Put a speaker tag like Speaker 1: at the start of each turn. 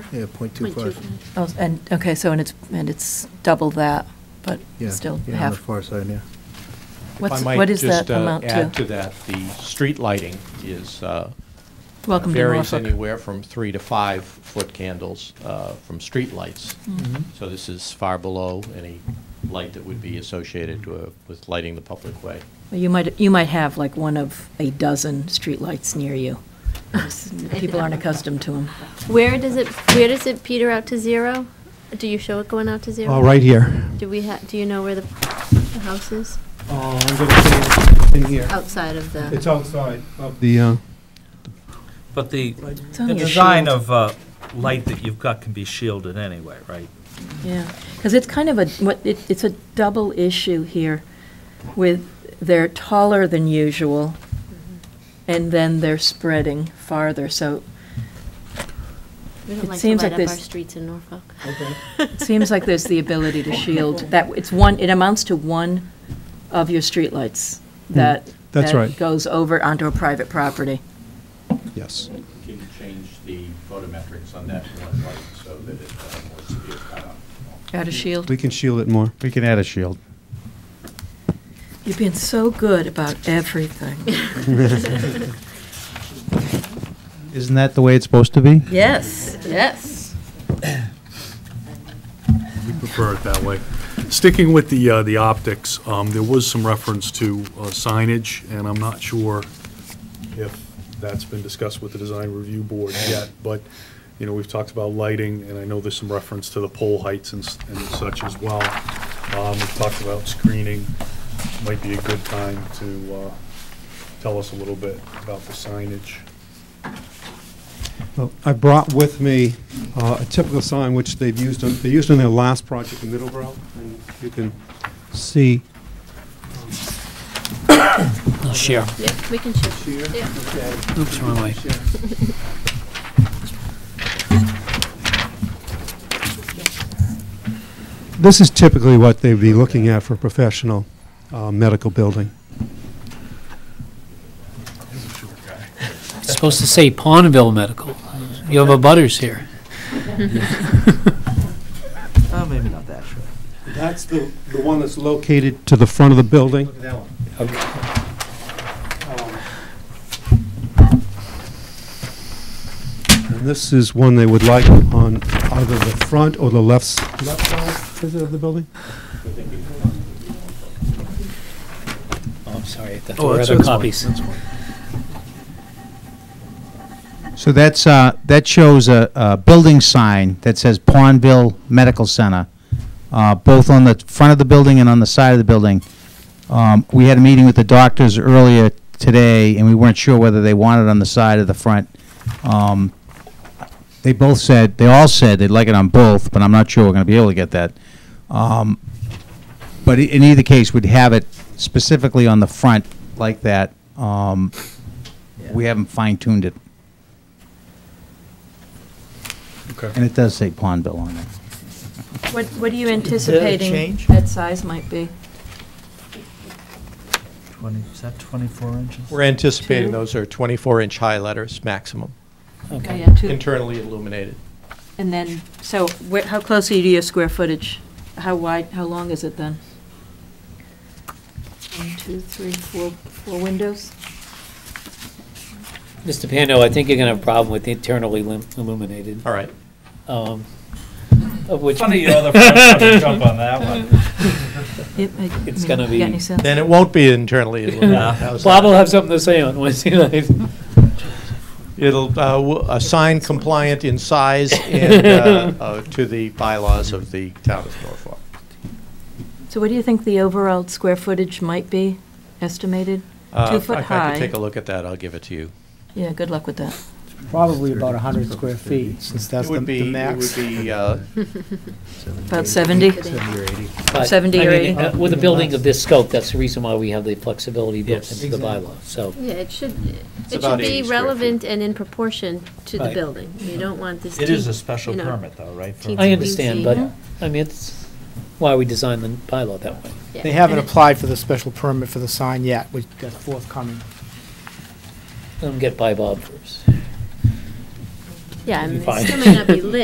Speaker 1: Yeah, point two five.
Speaker 2: Oh, and, okay, so, and it's, and it's double that, but
Speaker 1: Yeah,
Speaker 2: still
Speaker 1: yeah, On the
Speaker 2: half.
Speaker 1: far side, yeah.
Speaker 2: What's, what is that amount
Speaker 3: If I might just uh, add to
Speaker 2: to?
Speaker 3: that, the street lighting is, uh,
Speaker 2: Welcome to
Speaker 3: varies
Speaker 2: Norfolk.
Speaker 3: anywhere from three to five foot candles uh, from street lights. So this is far below any light that would be associated to a- with lighting the public way.
Speaker 4: You might, you might have like one of a dozen streetlights near you. People aren't accustomed to them.
Speaker 5: Where does it, where does it peter out to zero? Do you show it going out to zero?
Speaker 6: Oh, right here.
Speaker 5: Do we ha, do you know where the, the house is?
Speaker 6: Oh, I'm gonna put it in here.
Speaker 5: Outside of
Speaker 6: It's
Speaker 5: the,
Speaker 6: outside of the, uh,
Speaker 7: But the,
Speaker 2: It's on
Speaker 7: the
Speaker 2: your
Speaker 7: design
Speaker 2: shield.
Speaker 7: of uh, light that you've got can be shielded anyway, right?
Speaker 4: Yeah, because it's kind of a, what, it, it's a double issue here with they're taller than usual, and then they're spreading farther, so
Speaker 5: we
Speaker 4: it
Speaker 5: don't like to
Speaker 4: seems
Speaker 5: light
Speaker 4: like
Speaker 5: up our
Speaker 4: there's-
Speaker 5: streets in Norfolk.
Speaker 4: it seems like there's the ability to shield, that, it's one, it amounts to one of your streetlights that.
Speaker 6: Hmm. that's right.
Speaker 4: That goes over onto a private property.
Speaker 6: yes.
Speaker 3: Can you change the photometrics on that one light so that it's more severe
Speaker 4: Got a shield?
Speaker 6: We can shield it more.
Speaker 8: We can add a shield.
Speaker 4: You've been so good about everything.
Speaker 8: Isn't that the way it's supposed to be?
Speaker 4: Yes, yes.
Speaker 9: We prefer it that way. Sticking with the, uh, the optics, um, there was some reference to uh, signage, and I'm not sure if that's been discussed with the design review board yet, but, you know, we've talked about lighting, and I know there's some reference to the pole heights and s- and such as well. Um, We've talked about screening. Might be a good time to uh, tell us a little bit about the signage.
Speaker 6: Well, oh, I brought with me uh, a typical sign which they've used, on- they used on their last project in Middleborough, and you can see.
Speaker 10: Share.
Speaker 5: Yeah, we can show.
Speaker 10: Oops, wrong way.
Speaker 6: This is typically what they'd be looking at for a professional uh, medical building.
Speaker 10: It's supposed to say Pondville Medical. You have a butters here.
Speaker 1: Oh, maybe not that sure.
Speaker 6: That's the, the one that's located to the front of the building. Look at that one. And this is one they would like on either the front or the left, s- left side is it, of the building?
Speaker 10: Oh, I'm sorry, I thought there
Speaker 9: Oh,
Speaker 10: were
Speaker 9: that's-
Speaker 10: other
Speaker 9: that's fine,
Speaker 10: copies.
Speaker 9: that's fine.
Speaker 8: So that's, uh, that shows a, a building sign that says Pondville Medical Center, uh, both on the front of the building and on the side of the building. Um, we had a meeting with the doctors earlier today, and we weren't sure whether they wanted it on the side or the front. Um, they both said, they all said they'd like it on both, but I'm not sure we're gonna be able to get that. Um, but i- in either case, we'd have it specifically on the front like that. Um, we haven't fine-tuned it.
Speaker 9: Okay.
Speaker 8: And it does say Pondville on it.
Speaker 4: What, what are you anticipating
Speaker 10: change?
Speaker 4: that size might be?
Speaker 10: Twenty, is that twenty-four inches?
Speaker 3: We're anticipating
Speaker 4: Two.
Speaker 3: those are 24-inch high letters maximum,
Speaker 4: Oh,
Speaker 10: Okay.
Speaker 4: yeah, two-
Speaker 3: internally illuminated.
Speaker 4: And then, so where, how close are you to your square footage? How wide, how long is it then? One, two, three, four, four windows?
Speaker 10: Mr. Pando, I think you're gonna have a problem with internally lim- illuminated,
Speaker 3: All right.
Speaker 10: um, of which.
Speaker 7: Funny, you know, the first one to jump on that one.
Speaker 4: It- I- I
Speaker 10: It's
Speaker 4: mean,
Speaker 10: gonna
Speaker 4: you got any
Speaker 10: be-
Speaker 4: sense?
Speaker 3: Then it won't be internally illuminated.
Speaker 7: Yeah.
Speaker 3: How's
Speaker 10: Bob
Speaker 3: that?
Speaker 10: will have something to say on Wednesday night.
Speaker 3: It'll, uh, w- a sign compliant in size and, uh, uh, to the bylaws of the town of Norfolk.
Speaker 4: So what do you think the overall square footage might be estimated?
Speaker 3: Uh,
Speaker 4: Two
Speaker 3: if I-
Speaker 4: foot
Speaker 3: I
Speaker 4: high.
Speaker 3: can take a look at that, I'll give it to you.
Speaker 4: Yeah, good luck with that.
Speaker 1: Probably about 100 square feet,
Speaker 8: since
Speaker 3: It would be, it would be, uh,
Speaker 4: About 70?
Speaker 1: Seventy or eighty.
Speaker 10: But,
Speaker 4: 70
Speaker 10: I
Speaker 4: or
Speaker 10: mean,
Speaker 4: 80?
Speaker 10: uh, With a building of this scope, that's the reason why we have the flexibility built into the bylaw, so.
Speaker 5: Yeah, it should, it
Speaker 3: about
Speaker 5: should
Speaker 3: 80
Speaker 5: be
Speaker 3: square feet.
Speaker 5: relevant and in proportion to the
Speaker 10: Right.
Speaker 5: building. You don't want this.
Speaker 7: It is a
Speaker 5: teeny-
Speaker 7: special
Speaker 5: you know,
Speaker 7: permit though, right? for-
Speaker 5: teensy
Speaker 10: I understand, but,
Speaker 5: weensy-
Speaker 10: I mean, it's why we designed the bylaw that way.
Speaker 5: yeah.
Speaker 1: They haven't
Speaker 5: And it-
Speaker 1: applied for the special permit for the sign yet, which that's forthcoming.
Speaker 10: Let them get by Bob first.
Speaker 5: Yeah, I mean,
Speaker 10: Fine.
Speaker 5: it still may not be lit,